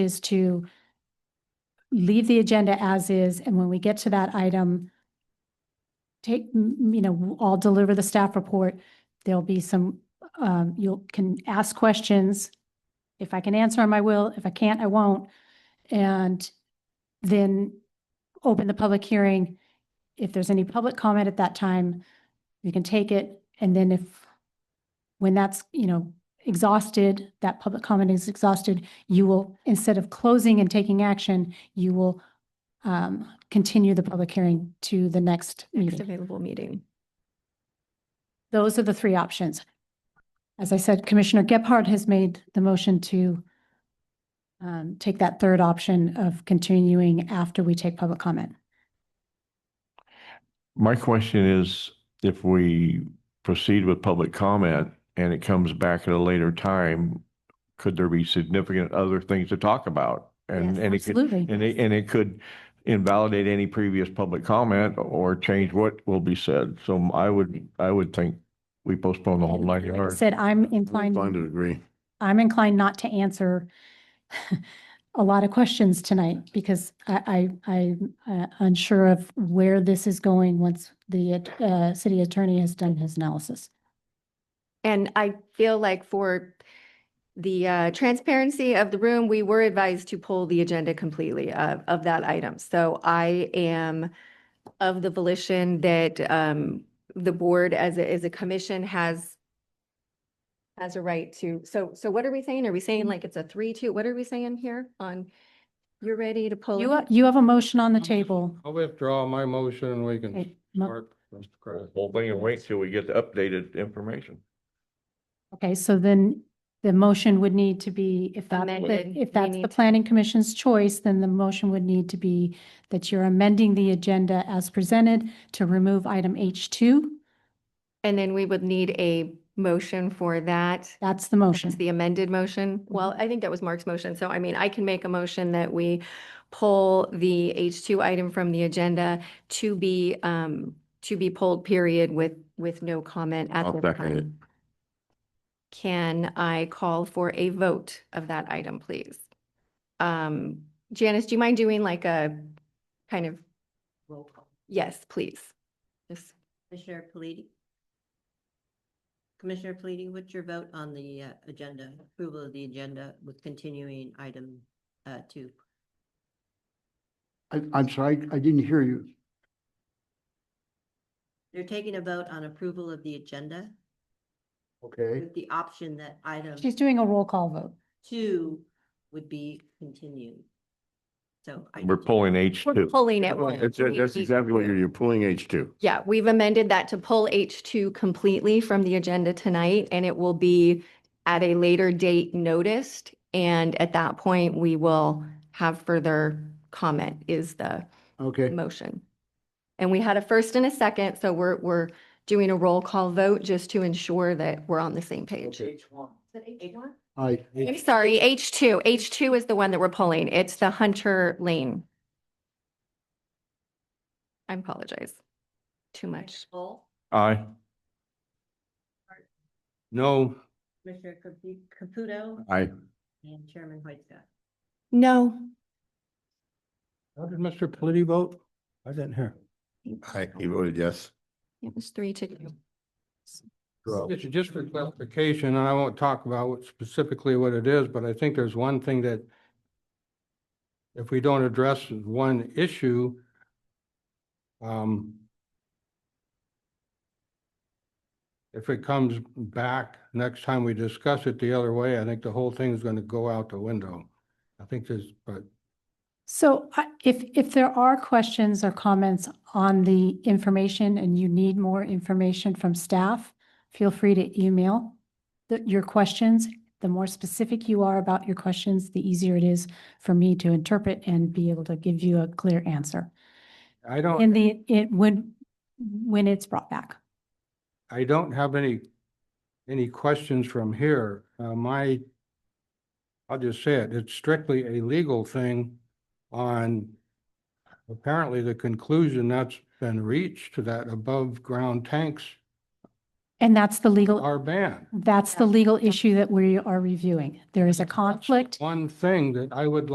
is to leave the agenda as is, and when we get to that item, take, m- you know, I'll deliver the staff report. There'll be some, um, you'll, can ask questions. If I can answer them, I will. If I can't, I won't. And then open the public hearing. If there's any public comment at that time, you can take it. And then if, when that's, you know, exhausted, that public comment is exhausted, you will, instead of closing and taking action, you will um, continue the public hearing to the next Next meeting. available meeting. Those are the three options. As I said, Commissioner Gephardt has made the motion to um, take that third option of continuing after we take public comment. My question is, if we proceed with public comment and it comes back at a later time, could there be significant other things to talk about? And, and it could, Absolutely. and it, and it could invalidate any previous public comment or change what will be said. So I would, I would think we postpone the whole nine yards. Said I'm I'm Inclined to inclined, agree. I'm inclined not to answer a lot of questions tonight because I, I, I'm uh, unsure of where this is going once the uh, city attorney has done his analysis. And I feel like for the uh, transparency of the room, we were advised to pull the agenda completely of, of that item. So I am of the volition that um, the board as a, as a commission has has a right to, so, so what are we saying? Are we saying like it's a three, two? What are we saying here on, you're ready to pull? You, it? ha- you have a motion on the table. I'll withdraw my motion and we can Okay, mo- start. Mr. Kraft. Whole thing and wait till we get the updated information. Okay, so then the motion would need to be, if that, Amended. if We that's need the to- planning commission's choice, then the motion would need to be that you're amending the agenda as presented to remove item H2. And then we would need a motion for that. That's the That's motion. the amended motion. Well, I think that was Mark's motion. So I mean, I can make a motion that we pull the H2 item from the agenda to be, um, to be pulled period with, with no comment at I'll this second it. time. Can I call for a vote of that item, please? Um, Janice, do you mind doing like a kind of? Roll call. Yes, please. Just Commissioner Paliti? Commissioner Paliti, what's your vote on the uh, agenda, approval of the agenda with continuing item uh, two? I, I'm sorry, I didn't hear you. You're taking a vote on approval of the agenda Okay, with the option that item She's doing a roll call vote. two would be continued. So. I- We're pulling H we're two. pulling it. once. That's, We- that's we- exactly what you're, you're pulling H two. Yeah, we've amended that to pull H2 completely from the agenda tonight, and it will be at a later date noticed. And at that point, we will have further comment is the okay. motion. And we had a first and a second, so we're, we're doing a roll call vote just to ensure that we're on the same page. H1? I, I'm sorry, H2. H2 is the one that we're pulling. It's the Hunter Lane. I apologize. Too much. Roll. Aye. No, Commissioner Capu- Caputo I, and Chairman Whiteside. No. how did Mr. Pelletti vote? I didn't hear. I, he voted yes. It was three to two. It's just for clarification, and I won't talk about what specifically what it is, but I think there's one thing that if we don't address one issue, um, if it comes back next time we discuss it the other way, I think the whole thing is going to go out the window. I think there's, but So I- if, if there are questions or comments on the information and you need more information from staff, feel free to email the- your questions. The more specific you are about your questions, the easier it is for me to interpret and be able to give you a clear answer. I don't. In the, it, when, when it's brought back. I don't have any, any questions from here. Uh, my, I'll just say it, it's strictly a legal thing on apparently the conclusion that's been reached that above-ground tanks And that's the legal, are banned. that's the legal issue that we are reviewing. There is a That's conflict One thing that I would